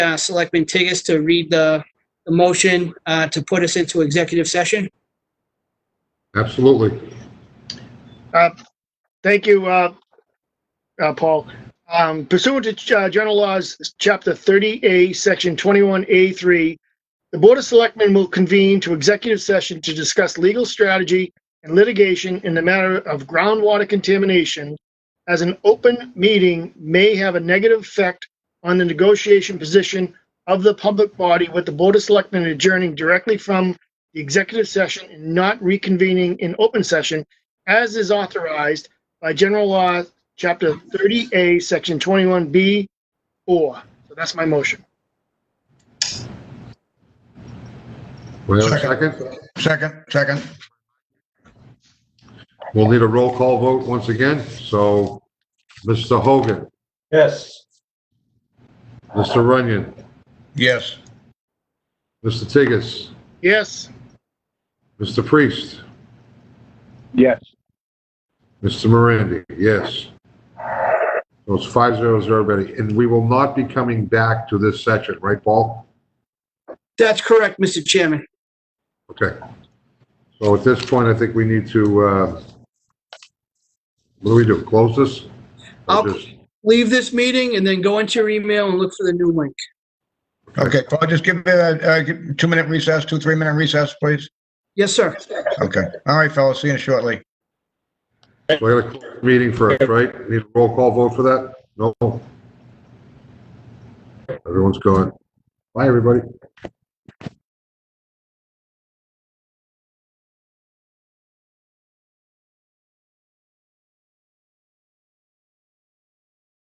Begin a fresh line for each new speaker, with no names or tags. uh, Selectman Tigges to read the the motion uh, to put us into executive session.
Absolutely.
Thank you, uh, uh, Paul. Um, Pursuant to uh, General Laws, Chapter 30A, Section 21A3, the Board of Selectmen will convene to executive session to discuss legal strategy and litigation in the matter of groundwater contamination, as an open meeting may have a negative effect on the negotiation position of the public body with the Board of Selectmen adjourning directly from the executive session and not reconvening in open session as is authorized by General Law, Chapter 30A, Section 21B, 4. So that's my motion.
Wait a second.
Second, second.
We'll need a roll call vote once again. So, Mr. Hogan,
Yes.
Mr. Runyon,
Yes.
Mr. Tigges,
Yes,
Mr. Priest,
Yes.
Mr. Morandi, yes. So it's five zero zero, Betty. And we will not be coming back to this session, right, Paul?
That's correct, Mr. Chairman.
Okay. So at this point, I think we need to, uh, what do we do? Close this?
I'll-
Or just-
Leave this meeting and then go into your email and look for the new link.
Okay, Paul, just give me a, a two-minute recess, two, three-minute recess, please.
Yes, sir.
Okay. All right, fellas, see you shortly.
We got a closed meeting first, right? Need a roll call vote for that? No? Everyone's gone. Bye, everybody.